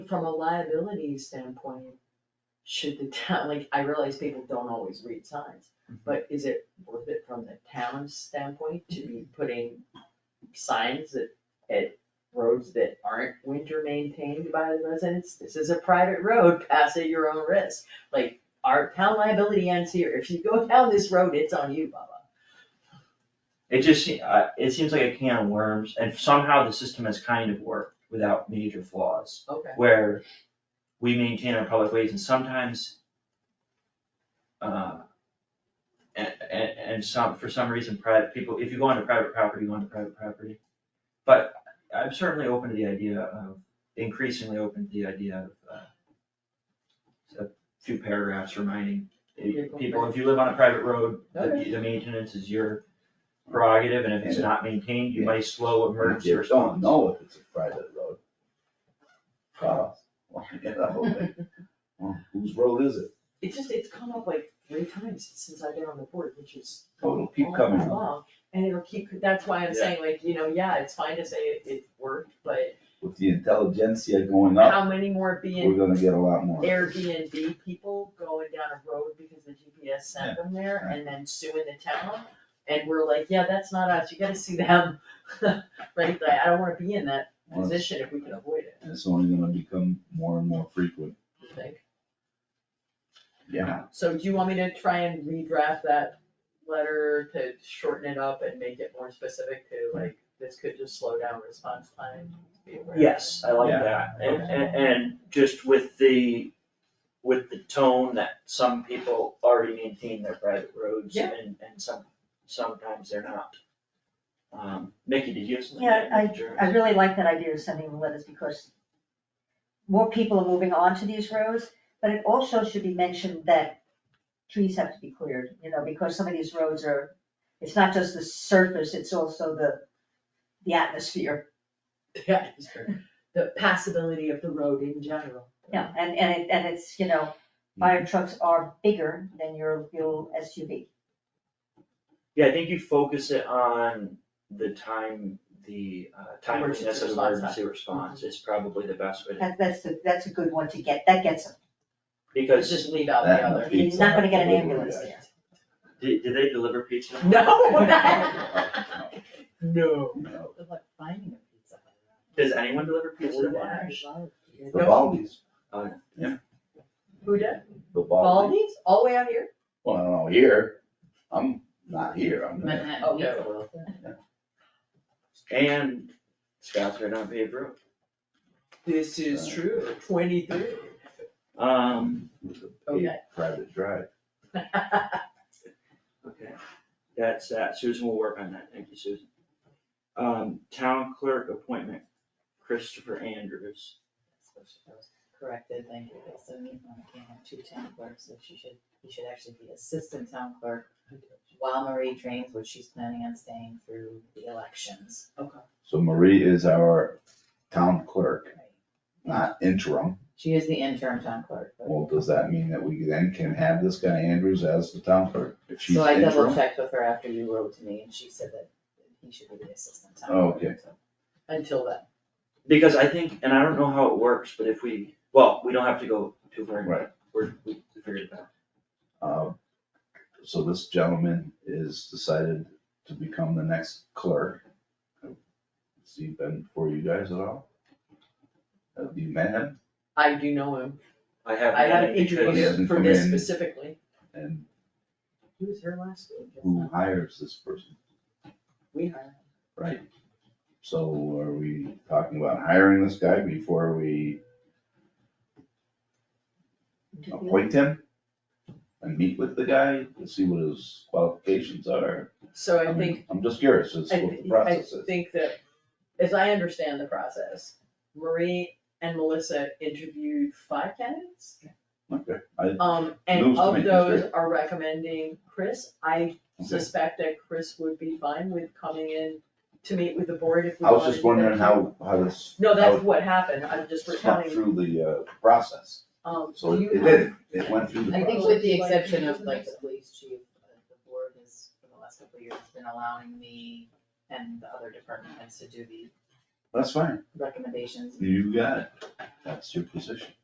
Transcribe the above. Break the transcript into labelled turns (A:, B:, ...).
A: from a liability standpoint, should the town, like, I realize people don't always read signs, but is it worth it from the town's standpoint to be putting signs that, at roads that aren't winter maintained by the residents? This is a private road, pass at your own risk, like, our town liability ends here, if you go down this road, it's on you, Baba.
B: It just, se- uh, it seems like a can of worms, and somehow the system has kind of worked without major flaws,
A: Okay.
B: where we maintain our public ways and sometimes, uh, and, and, and some, for some reason, private people, if you go onto private property, you go onto private property. But I'm certainly open to the idea of, increasingly open to the idea of, uh, a few paragraphs reminding
A: People.
B: people, if you live on a private road, the,
A: Okay.
B: the maintenance is your prerogative, and if it's not maintained, you might slow
C: If
B: emergency
C: you don't
B: response.
C: know if it's a private road. Uh, well, you know, like, well, whose road is it?
A: It's just, it's come up like three times since I've been on the board, which is.
C: Oh, it'll keep
A: all
C: coming
A: night
C: up.
A: long, And it'll keep, that's why I'm
B: Yeah.
A: saying like, you know, yeah, it's fine to say it, it worked, but
C: With the intelligentsia going up,
A: how many more
C: we're
A: being
C: gonna get a lot more.
A: Airbnb people going down a road because the GPS sent them there
C: right.
A: and then suing the town? And we're like, yeah, that's not us, you gotta see them, right, like, I don't wanna be in that
C: Well, it's-
A: position if we can avoid it,
C: And it's only gonna become more and more frequent.
A: you think?
C: Yeah.
A: So do you want me to try and redraft that letter to shorten it up and make it more specific to like, this could just slow down response time? be aware of it?
B: Yes, I like
C: Yeah.
B: that, and, and, and just with the, with the tone that some people already maintain their private roads
A: Yeah.
B: and, and some, sometimes they're not. Um, Mickey, did you have something?
D: Yeah,
B: Sure.
D: I really like that idea of sending the letters because more people are moving on to these roads, but it also should be mentioned that trees have to be cleared, you know, because some of these roads are, it's not just the surface, it's also the, the atmosphere.
A: Yeah, it's true. the passability of the road in general.
D: Yeah, and, and it, and it's, you know, fire trucks are bigger than your, your SUV.
B: Yeah, I think you focus it on the time, the, uh, timeliness of
A: Emergency response time.
B: emergency response is probably the best way, to-
D: That, that's, the- that's a good one to get, that gets them.
A: Let's
B: because,
A: just leave out
C: That
A: the
C: and the
A: other.
C: feet.
D: You're not gonna get an ambulance there.
B: did, did they deliver pizza?
A: No. No.
C: No.
E: Good luck finding a pizza. Hut.
B: Does anyone deliver pizza?
A: Or that.
E: There's a lot of-
C: The Baldies,
A: Who did?
C: the Baldies.
A: Baldies, all the way out here?
C: Well, I don't know, here, I'm not here, I'm there.
E: Manhattan
A: Oh,
E: Pizza.
A: yeah,
B: And Scott's right on paved road.
A: This is
C: Right.
A: true, twenty-three.
B: Um,
A: Okay.
C: Private drive.
B: okay, that's that. Susan will work on that. Thank you, Susan. Um, town clerk appointment, Christopher Andrews.
E: That's what she was Corrected, thank you, That's so neat. Well, I can't have two town clerks, so she should, he should actually be assistant town clerk while Marie trains, which she's planning on staying through the elections.
C: So Marie is our town clerk, not interim.
E: She is the interim town clerk, but-
C: Well, does that mean that we then can have this guy Andrews as the town clerk? If she's
E: so I double
C: interim,
E: checked with her after you wrote to me, and she said that he should be the assistant town
C: Oh,
E: clerk.
C: okay.
E: so.
A: Until then.
B: Because I think, and I don't know how it works, but if we, well, we don't have to go too far.
C: Right.
B: We're, we figured it out.
C: uh, so this gentleman is decided to become the next clerk. Has he been for you guys at all? Have you met him?
A: I do know him.
B: I
A: I
B: haven't,
A: haven't
B: had it
A: interviewed
B: because
A: him
C: hasn't
A: for
C: come
A: this
C: in.
A: specifically.
C: And
A: He was here last week.
C: who hires this person,
A: We hired
C: right? So are we talking about hiring this guy before we appoint him? And meet with the guy to see what his qualifications are?
A: him. So I
E: Oh,
C: I'm-
A: think
C: I'm just curious, as
A: I
C: to what the
A: thi- I
C: process is.
A: think that, as I understand the process, Marie and Melissa interviewed five candidates.
C: Okay, I,
A: Um, and
C: Those to
A: of
C: make
A: those
C: history.
A: are recommending Chris. I
C: Okay.
A: suspect that Chris would be fine with coming in to meet with the board if we
C: I
A: wanted to.
C: was just wondering how, how this.
A: No,
C: how
A: that's
C: it
A: what happened. I'm just
C: snuck
A: recounting,
C: Through the, uh, process,
A: um,
C: so
A: do
C: it
A: you
C: it
A: have-
C: did, it went through the
E: I think
C: process.
E: with the exception of like the police chief, uh, the board has, for the last couple of years, been allowing me and the other department heads to do the
C: That's fine.
E: recommendations.
C: You got it. That's your position.